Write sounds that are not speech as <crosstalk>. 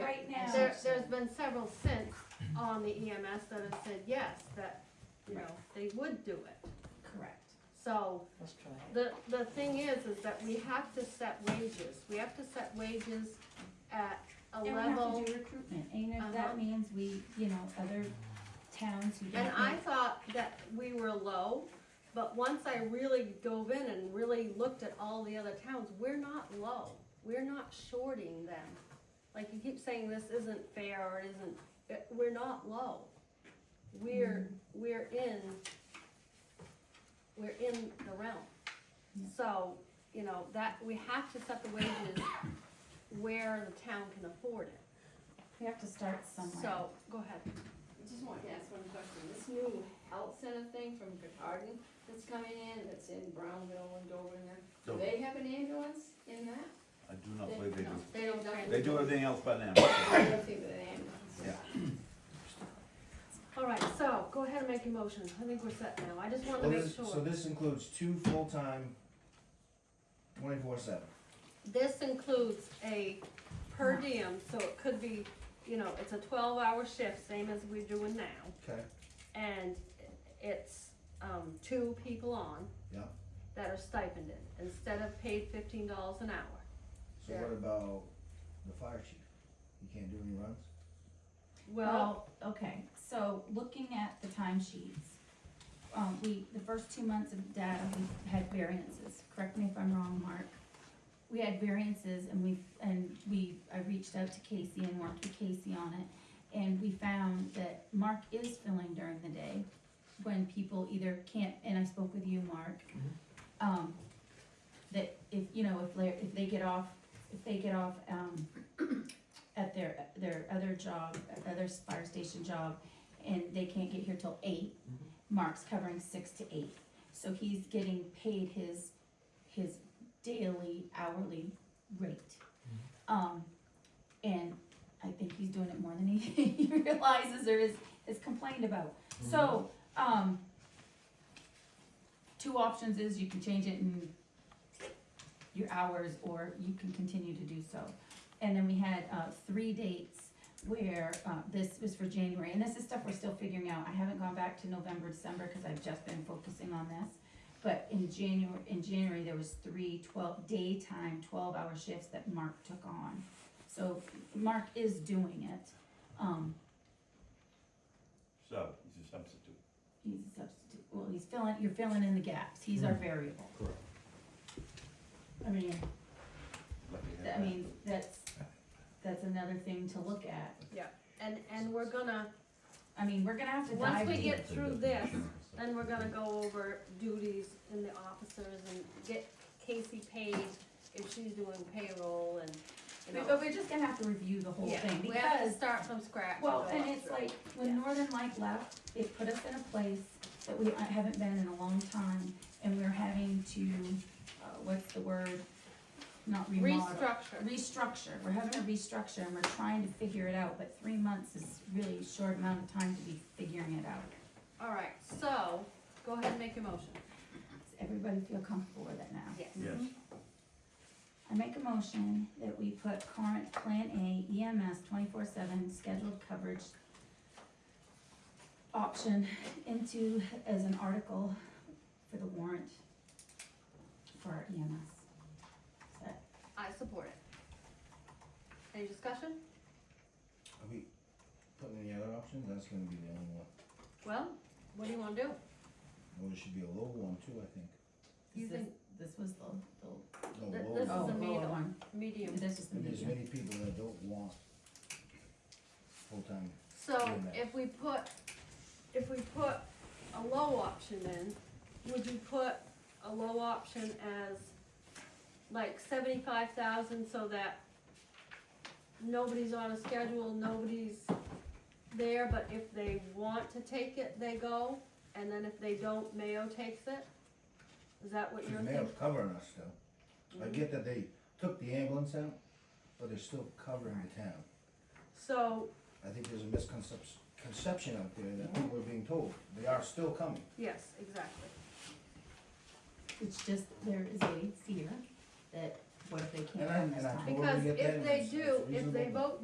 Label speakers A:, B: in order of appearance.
A: been several since on the EMS that have said yes, that, you know, they would do it.
B: Correct.
A: So,
B: Let's try it.
A: the, the thing is, is that we have to set wages, we have to set wages at a
B: And we have
A: level.
B: to do recruitment, and you know, if
A: Uh-huh.
B: that means we, you know, other towns who don't
A: And I
B: think,
A: thought that we were low, but once I really dove in and really looked at all the other towns, we're not low. We're not shorting them. Like you keep saying this isn't fair or it isn't, it- we're not low. We're, we're in, we're in the realm.
B: Yeah.
A: So, you know, that, we have to set the wages where the town can afford it.
B: we have to start somewhere.
A: So, go ahead.
C: I just want to ask one question, this new health center thing from Goodharden that's coming in, that's in Brownville and Dover and there, do
D: Dover.
C: they have an ambulance in that?
D: I do not believe they do.
C: They don't, don't.
D: They do everything else but <coughs> them.
C: I don't think with an ambulance.
D: Yeah.
A: All right, so go ahead and make your motion. I think we're set now. I just wanted to
E: Well,
A: make
E: this, so
A: sure.
E: this includes two full-time, twenty-four seven.
A: This includes a per diem, so it could be, you know, it's a twelve hour shift, same as we're doing now.
E: Okay.
A: And it's, um, two people on.
E: Yeah.
A: That are stipended, instead of paid fifteen dollars an hour.
E: So what about the fire chief? He can't do any runs?
A: Well,
B: Well, okay, so looking at the timesheets, um, we, the first two months of data, we had variances, correct me if I'm wrong, Mark. We had variances and we, and we, I reached out to Casey and worked with Casey on it, and we found that Mark is filling during the day when people either can't, and I spoke with you, Mark, um, that if, you know, if they, if they get off, if they get off, um, at their, their other job, at their other fire station job, and they can't get here till eight, Mark's covering six to eight. So he's getting paid his, his daily hourly rate. Um, and I think he's doing it more than he, <laughs> he realizes or is, is complained about. So, um, two options is you can change it in your hours, or you can continue to do so. And then we had, uh, three dates where, uh, this was for January, and this is stuff we're still figuring out. I haven't gone back to November, December, cause I've just been focusing on this. But in January, in January, there was three twelve, daytime twelve-hour shifts that Mark took on. So Mark is doing it, um,
D: So, he's a substitute.
B: he's a substitute, well, he's filling, you're filling in the gaps, he's our variable.
E: Correct.
B: I mean,
D: Lucky him.
B: I mean, that's, that's another thing to look at.
A: and, and we're gonna,
B: I mean, we're gonna have to
A: once
B: dive
A: we
B: deep.
A: get through this, then we're gonna go over duties in the officers and get Casey paid if she's doing payroll and, you know.
B: But we're just gonna have to review the whole
A: Yeah,
B: thing
A: We have
B: because,
A: to start from scratch.
B: well,
A: go
B: and
A: up
B: it's
A: through.
B: like, when Northern Light left, it put us in a place that we haven't been in a long time and we're having to, uh, what's the word? Not remodel.
A: Restructure.
B: Restructure. We're having a restructure and we're trying to figure it out, but three months is really a short amount of time to be figuring it out.
A: All right, so, go ahead and make your motion.
B: Does everybody feel comfortable with it now?
A: Yes.
D: Yes,
B: I make a motion that we put current Plan A EMS twenty-four seven scheduled coverage option into, as an article for the warrant for our EMS. Is that-
A: I support it. Any discussion?
E: Are we putting any other options? That's gonna be the only one.
A: Well, what do you wanna do?
E: Well, there should be a low one too, I think.
A: You
B: this-
A: think-
B: This was the, the.
E: No,
A: Th-
E: low
A: this is
E: one.
A: a
B: oh,
A: medium.
B: one.
A: Medium.
B: This is the
E: And there's
B: medium.
E: many people that don't want full-time.
A: So,
E: Medium.
A: if we put, if we put a low option in, would you put a low option as like seventy-five thousand so that nobody's on a schedule, nobody's there, but if they want to take it, they go, and then if they don't, Mayo takes it? Is that what
E: The
A: you're Mm-hmm.
E: mayor's
A: thinking?
E: covering us still. I get that they took the ambulance out, but they're still covering the town.
A: So,
E: I think there's a misconception conception out there that people are being told. They are still coming.
A: yes, exactly.
B: It's just, there is a fear that what if they
E: And
B: can't
E: I-
B: come this
E: and I
B: time?
E: Well, we
A: Because
E: get that
A: if
E: and
A: they
E: it's-
A: do,
E: it's
A: if they
E: reasonable.
A: vote